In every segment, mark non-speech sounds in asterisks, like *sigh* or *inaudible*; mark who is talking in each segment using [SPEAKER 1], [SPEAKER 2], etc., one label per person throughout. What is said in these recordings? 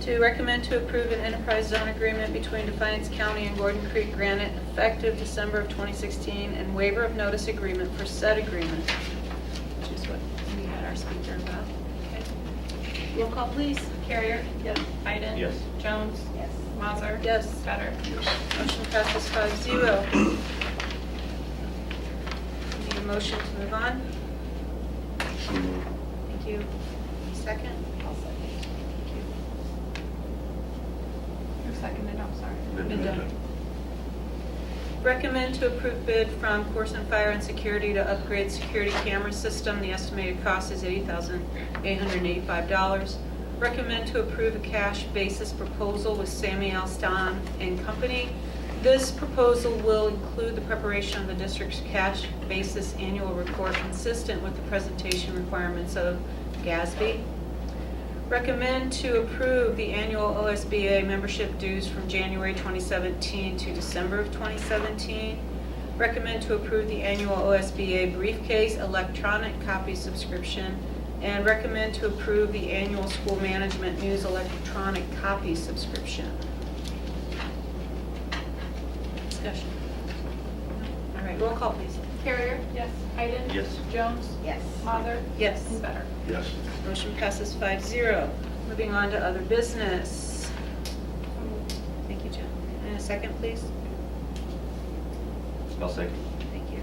[SPEAKER 1] to recommend to approve an enterprise zone agreement between Defiance County and Gordon Creek Granite effective December of 2016 and waiver of notice agreement for said agreement, which is what we had our speaker about.
[SPEAKER 2] Okay. Roll call, please.
[SPEAKER 3] Carrier?
[SPEAKER 1] Yes.
[SPEAKER 3] Iden?
[SPEAKER 4] Yes.
[SPEAKER 3] Jones?
[SPEAKER 2] Yes.
[SPEAKER 3] Mazer?
[SPEAKER 1] Yes.
[SPEAKER 3] Better?
[SPEAKER 1] Motion passes five zero. Need a motion to move on? Thank you. Second?
[SPEAKER 3] Who seconded, I'm sorry.
[SPEAKER 1] Linda. Recommend to approve bid from Corson Fire and Security to upgrade security camera system. The estimated cost is $80,885. Recommend to approve a cash basis proposal with Sammy Alston and Company. This proposal will include the preparation of the district's cash basis annual report consistent with the presentation requirements of GASB. Recommend to approve the annual OSBA membership dues from January 2017 to December of 2017. Recommend to approve the annual OSBA briefcase electronic copy subscription. And recommend to approve the annual school management news electronic copy subscription. Discussion. All right, roll call, please.
[SPEAKER 3] Carrier? Yes. Iden?
[SPEAKER 4] Yes.
[SPEAKER 3] Jones?
[SPEAKER 2] Yes.
[SPEAKER 3] Mazer?
[SPEAKER 1] Yes.
[SPEAKER 3] And *laughs* Better?
[SPEAKER 4] Yes.
[SPEAKER 1] Motion passes 5-0. Moving on to other business. Thank you, Jen. And a second, please?
[SPEAKER 4] I'll second.
[SPEAKER 1] Thank you.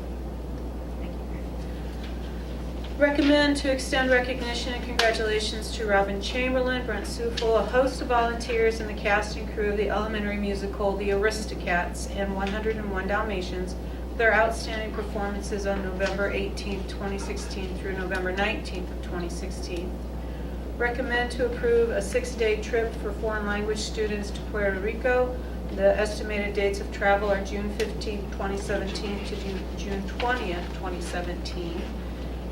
[SPEAKER 1] Thank you. Recommend to extend recognition and congratulations to Robin Chamberlain, Brent Sufol, a host of volunteers in the cast and crew of the elementary musical The Aristocats and 101 Dalmatians for their outstanding performances on November 18, 2016 through November 19th of 2016. Recommend to approve a six-day trip for foreign language students to Puerto Rico. The estimated dates of travel are June 15, 2017 to Ju- June 20, 2017.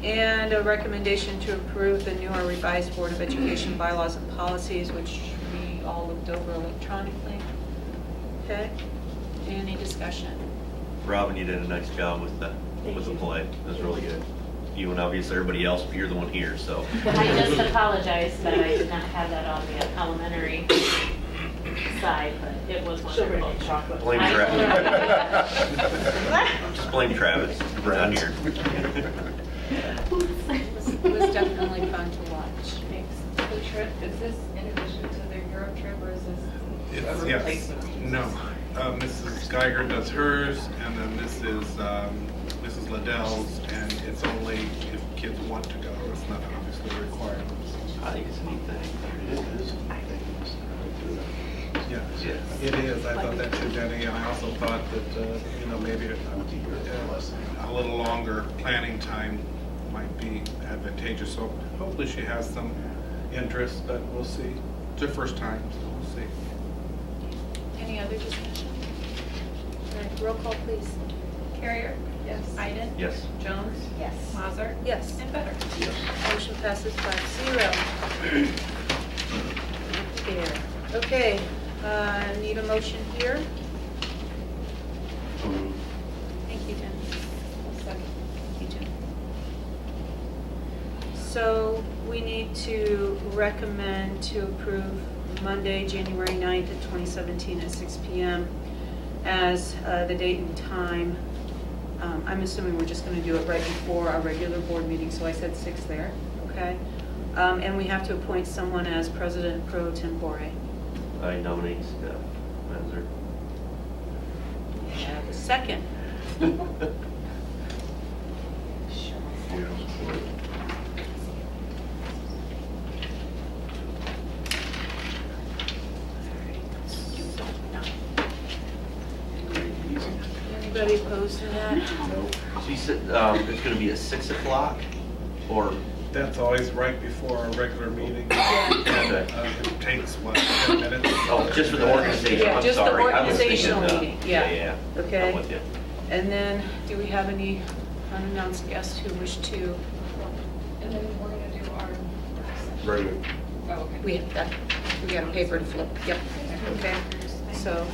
[SPEAKER 1] And a recommendation to approve the new or revised Board of Education bylaws and policies, which we all looked over electronically. Okay? Any discussion?
[SPEAKER 4] Robin, you did a nice job with the,
[SPEAKER 1] Thank
[SPEAKER 4] with the
[SPEAKER 1] you.
[SPEAKER 4] play. It was really good. You and obviously everybody else, but you're the one
[SPEAKER 1] *laughs*
[SPEAKER 4] here, so.
[SPEAKER 5] I just apologize that I did not have that on the elementary side, but it was wonderful.
[SPEAKER 1] *laughs*
[SPEAKER 4] Blame Travis. Just blame Travis, We're not
[SPEAKER 1] *laughs*
[SPEAKER 4] here.
[SPEAKER 1] It was definitely fun to watch.
[SPEAKER 6] The trip, is this in addition to their Europe trip or is this
[SPEAKER 7] It's-
[SPEAKER 6] a
[SPEAKER 7] Yes,
[SPEAKER 6] replacement?
[SPEAKER 7] no. Uh, Mrs. Geiger does hers, and then this is um, Mrs. Liddell's, and it's only if kids want to go. It's not obviously a requirement.
[SPEAKER 4] I think it's a neat thing.
[SPEAKER 7] Yeah,
[SPEAKER 4] Yeah.
[SPEAKER 7] it is. I thought that too, Jenny, and I also thought that, uh, you know, maybe uh, a little longer planning time might be advantageous. So hopefully she has some interest, but we'll see. It's her first time, so we'll see.
[SPEAKER 1] Any other discussion? All right, roll call, please.
[SPEAKER 3] Carrier? Yes. Iden?
[SPEAKER 4] Yes.
[SPEAKER 3] Jones?
[SPEAKER 2] Yes.
[SPEAKER 3] Mazer?
[SPEAKER 1] Yes.
[SPEAKER 3] And Better?
[SPEAKER 1] Motion passes five zero. There. Okay, uh, need a motion here? Thank you, Jen. Thank you, Jen. So we need to recommend to approve Monday, January 9th of 2017 at 6 PM as uh, the date and time. Um, I'm assuming we're just going to do it right before our regular board meeting, so I said 6 there, okay? Um, And we have to appoint someone as president pro tempore.
[SPEAKER 4] I nominate uh, Steph
[SPEAKER 1] *laughs*
[SPEAKER 4] Mazur.
[SPEAKER 1] Have a Second, anybody opposed to that?
[SPEAKER 4] She said, um, it's gonna be at six o'clock or,
[SPEAKER 7] That's always right before our regular meeting.
[SPEAKER 4] okay.
[SPEAKER 7] Uh, It takes, what, 10 minutes?
[SPEAKER 4] Oh, just for the organization,
[SPEAKER 1] Yeah,
[SPEAKER 4] I'm
[SPEAKER 1] just the
[SPEAKER 4] sorry. I was thinking,
[SPEAKER 1] organizational
[SPEAKER 4] uh,
[SPEAKER 1] meeting, yeah.
[SPEAKER 4] Yeah, yeah.
[SPEAKER 1] Okay.
[SPEAKER 4] I'm with you.
[SPEAKER 1] And then, do we have any unannounced guests who wish to?
[SPEAKER 6] And then we're gonna do our work session.
[SPEAKER 4] Right.
[SPEAKER 6] Oh, okay.
[SPEAKER 1] We have that, we got a paper to flip, yep. Okay, so,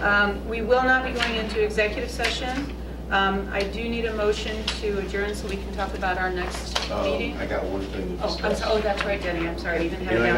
[SPEAKER 1] um, we will not be going into executive session. Um, I do need a motion to adjourn so we can talk about our next
[SPEAKER 8] Um,
[SPEAKER 1] meeting.
[SPEAKER 8] I got one thing to
[SPEAKER 1] Oh,
[SPEAKER 8] discuss.
[SPEAKER 1] I'm so, oh, that's right, Denny, I'm sorry, I even had it
[SPEAKER 8] Yeah, I
[SPEAKER 1] down.